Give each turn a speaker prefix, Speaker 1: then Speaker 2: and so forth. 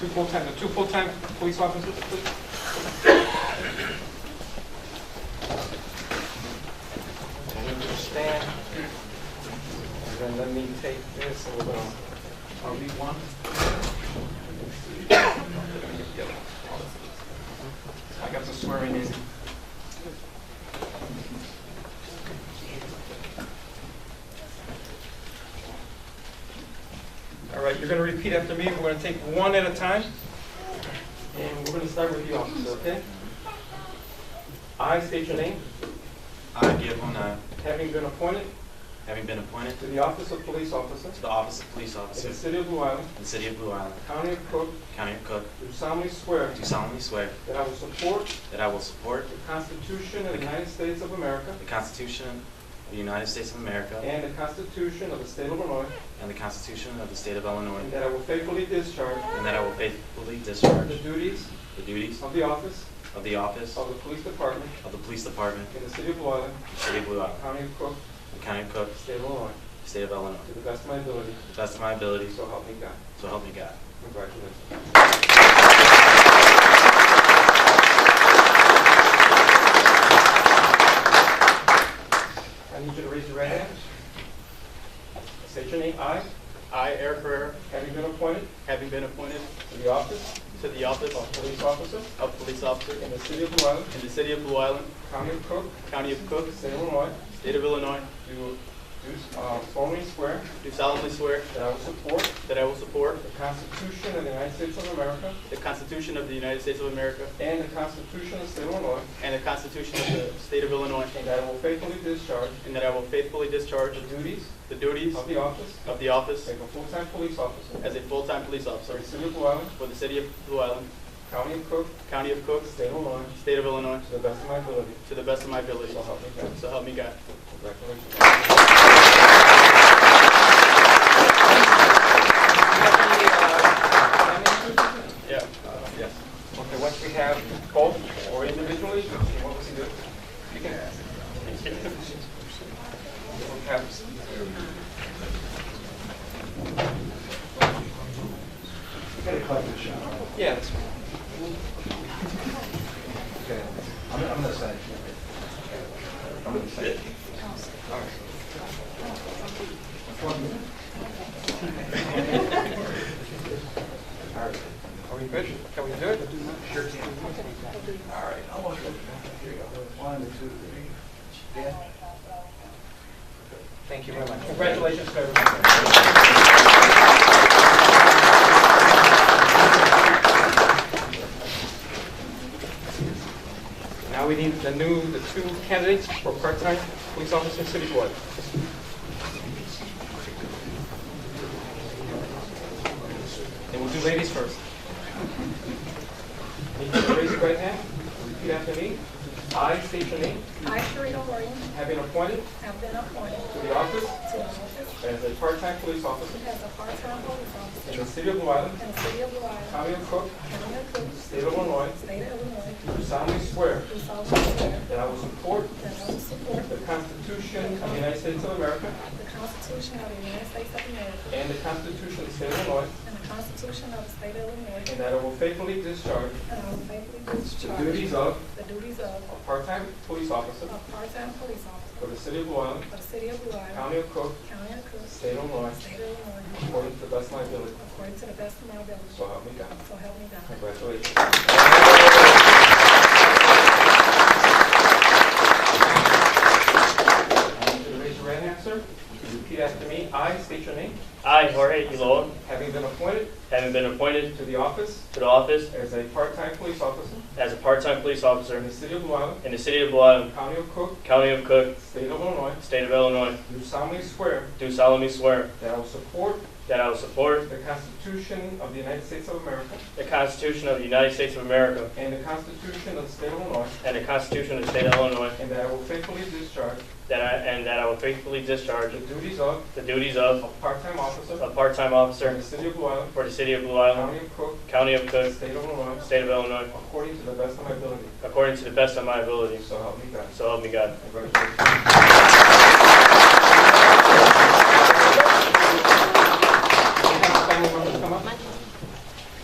Speaker 1: Two full-time, the two full-time police officers, please.
Speaker 2: I need you to stand. And then let me take this and we're gonna
Speaker 1: I'll leave one. I got the swearing in. All right, you're going to repeat after me. We're going to take one at a time. And we're going to start with you, officer, okay? I state your name,
Speaker 3: I, Gil I,
Speaker 1: having been appointed
Speaker 3: having been appointed
Speaker 1: to the office of police officer
Speaker 3: to the office of police
Speaker 1: in the
Speaker 3: officer
Speaker 1: city of Blue Island,
Speaker 3: in the city of Blue Island,
Speaker 1: county of Cook,
Speaker 3: county of Cook,
Speaker 1: do solemnly swear
Speaker 3: do solemnly swear
Speaker 1: that I will support
Speaker 3: that I will support
Speaker 1: The Constitution of the United States of America
Speaker 3: the Constitution of the United States of America
Speaker 1: and the Constitution of the State of Illinois,
Speaker 3: and the Constitution of the state of
Speaker 1: and
Speaker 3: Illinois,
Speaker 1: that I will faithfully discharge
Speaker 3: and that I will faithfully
Speaker 1: the
Speaker 3: discharge
Speaker 1: duties
Speaker 3: the duties
Speaker 1: of the office
Speaker 3: of the office
Speaker 1: of the Police Department
Speaker 3: of the police department
Speaker 1: in the City of Blue Island,
Speaker 3: in the city of Blue Island,
Speaker 1: County of Cook,
Speaker 3: county of Cook,
Speaker 1: State of Illinois,
Speaker 3: state of Illinois,
Speaker 1: to the best of my ability,
Speaker 3: to the best of my ability,
Speaker 1: so help me God.
Speaker 3: so help me God.
Speaker 1: Congratulations. I need you to raise your right hand. State your name. I,
Speaker 4: I, Eric Herrera,
Speaker 1: having been appointed
Speaker 4: having been appointed
Speaker 1: to the office
Speaker 4: to the office
Speaker 1: of police officer
Speaker 4: of police officer
Speaker 1: in the City of Blue Island,
Speaker 4: in the city of Blue Island,
Speaker 1: County of Cook,
Speaker 4: county of Cook,
Speaker 1: State of Illinois,
Speaker 4: state of Illinois,
Speaker 1: do do, uh, solemnly swear
Speaker 4: do solemnly swear
Speaker 1: that I will support
Speaker 4: that I will support
Speaker 1: the Constitution of the United States of America
Speaker 4: the Constitution of the United States of America
Speaker 1: and the Constitution of the State of Illinois,
Speaker 4: and the Constitution of the state of Illinois,
Speaker 1: and that I will faithfully discharge
Speaker 4: and that I will faithfully discharge
Speaker 1: the duties
Speaker 4: the duties
Speaker 1: of the office
Speaker 4: of the office
Speaker 1: of a full-time police officer
Speaker 4: as a full-time police
Speaker 1: for
Speaker 4: officer
Speaker 1: the City of Blue Island,
Speaker 4: for the city of Blue Island,
Speaker 1: County of Cook,
Speaker 4: county of Cook,
Speaker 1: State of Illinois,
Speaker 4: state of Illinois,
Speaker 1: to the best of my ability.
Speaker 4: to the best of my ability.
Speaker 1: So help me God.
Speaker 4: So help me God.
Speaker 1: Congratulations.
Speaker 4: Yeah. Yes.
Speaker 1: Okay, once we have both or individually, what was he doing? You can ask. We'll have- Yeah, that's fine.
Speaker 5: Okay, I'm, I'm gonna say. I'm gonna say.
Speaker 1: Are we good? Can we do it?
Speaker 5: Sure can. All right, almost. ready. Here you go. One, two, three. Dan?
Speaker 1: Thank you very much. Congratulations to everyone. Now we need the new, the two candidates for part-time police officer city board. And we'll do ladies first. Need you to raise your right hand, repeat after me. I state your name,
Speaker 6: I, Sharita Williams,
Speaker 1: have been appointed
Speaker 6: have been appointed
Speaker 1: to the office
Speaker 6: to the office
Speaker 1: as a part-time police officer
Speaker 6: as a part-time police
Speaker 1: in
Speaker 6: officer
Speaker 1: the city of Blue Island,
Speaker 6: in the city of Blue Island,
Speaker 1: County of Cook,
Speaker 6: county of Cook,
Speaker 1: State of Illinois,
Speaker 6: state of Illinois,
Speaker 1: do solemnly swear
Speaker 6: do solemnly swear
Speaker 1: that I will support
Speaker 6: that I will support
Speaker 1: the Constitution of the United States of America
Speaker 6: the Constitution of the United States of America
Speaker 1: and the Constitution of the State of Illinois,
Speaker 6: and the Constitution of the state of
Speaker 1: and
Speaker 6: Illinois,
Speaker 1: that I will faithfully discharge
Speaker 6: and I will faithfully
Speaker 1: the
Speaker 6: discharge
Speaker 1: duties of
Speaker 6: the duties of
Speaker 1: a part-time police officer
Speaker 6: a part-time police
Speaker 1: for
Speaker 6: officer
Speaker 1: the city of Blue Island,
Speaker 6: for the city of Blue Island,
Speaker 1: County of Cook,
Speaker 6: county of Cook,
Speaker 1: State of Illinois,
Speaker 6: state of Illinois,
Speaker 1: according to the best of my ability.
Speaker 6: according to the best of my ability.
Speaker 1: So help me God.
Speaker 6: So help me God.
Speaker 1: Congratulations. I want you to raise your right hand, sir. Repeat after me. I state your name,
Speaker 7: I, Jorge Quiloa,
Speaker 1: having been appointed
Speaker 7: having been appointed
Speaker 1: to the office
Speaker 7: to the office
Speaker 1: as a part-time police officer
Speaker 7: as a part-time police
Speaker 1: in
Speaker 7: officer
Speaker 1: the city of Blue Island,
Speaker 7: in the city of Blue Island,
Speaker 1: County of Cook,
Speaker 7: County of Cook,
Speaker 1: State of Illinois,
Speaker 7: State of Illinois,
Speaker 1: do solemnly swear
Speaker 7: do solemnly swear
Speaker 1: that I will support
Speaker 7: that I will support
Speaker 1: the Constitution of the United States of America
Speaker 7: the Constitution of the United States of America
Speaker 1: and the Constitution of the State of Illinois,
Speaker 7: and the Constitution of the State of Illinois,
Speaker 1: and that I will faithfully discharge
Speaker 7: that I, and that I will faithfully discharge
Speaker 1: the duties of
Speaker 7: the duties of
Speaker 1: a part-time officer
Speaker 7: a part-time
Speaker 1: in
Speaker 7: officer
Speaker 1: the city of Blue Island,
Speaker 7: for the city of Blue Island,
Speaker 1: County of Cook,
Speaker 7: County of Cook,
Speaker 1: State of Illinois,
Speaker 7: State of Illinois,
Speaker 1: according to the best of my ability.
Speaker 7: according to the best of my ability.
Speaker 1: So help me God.
Speaker 7: So help me God.
Speaker 1: Congratulations.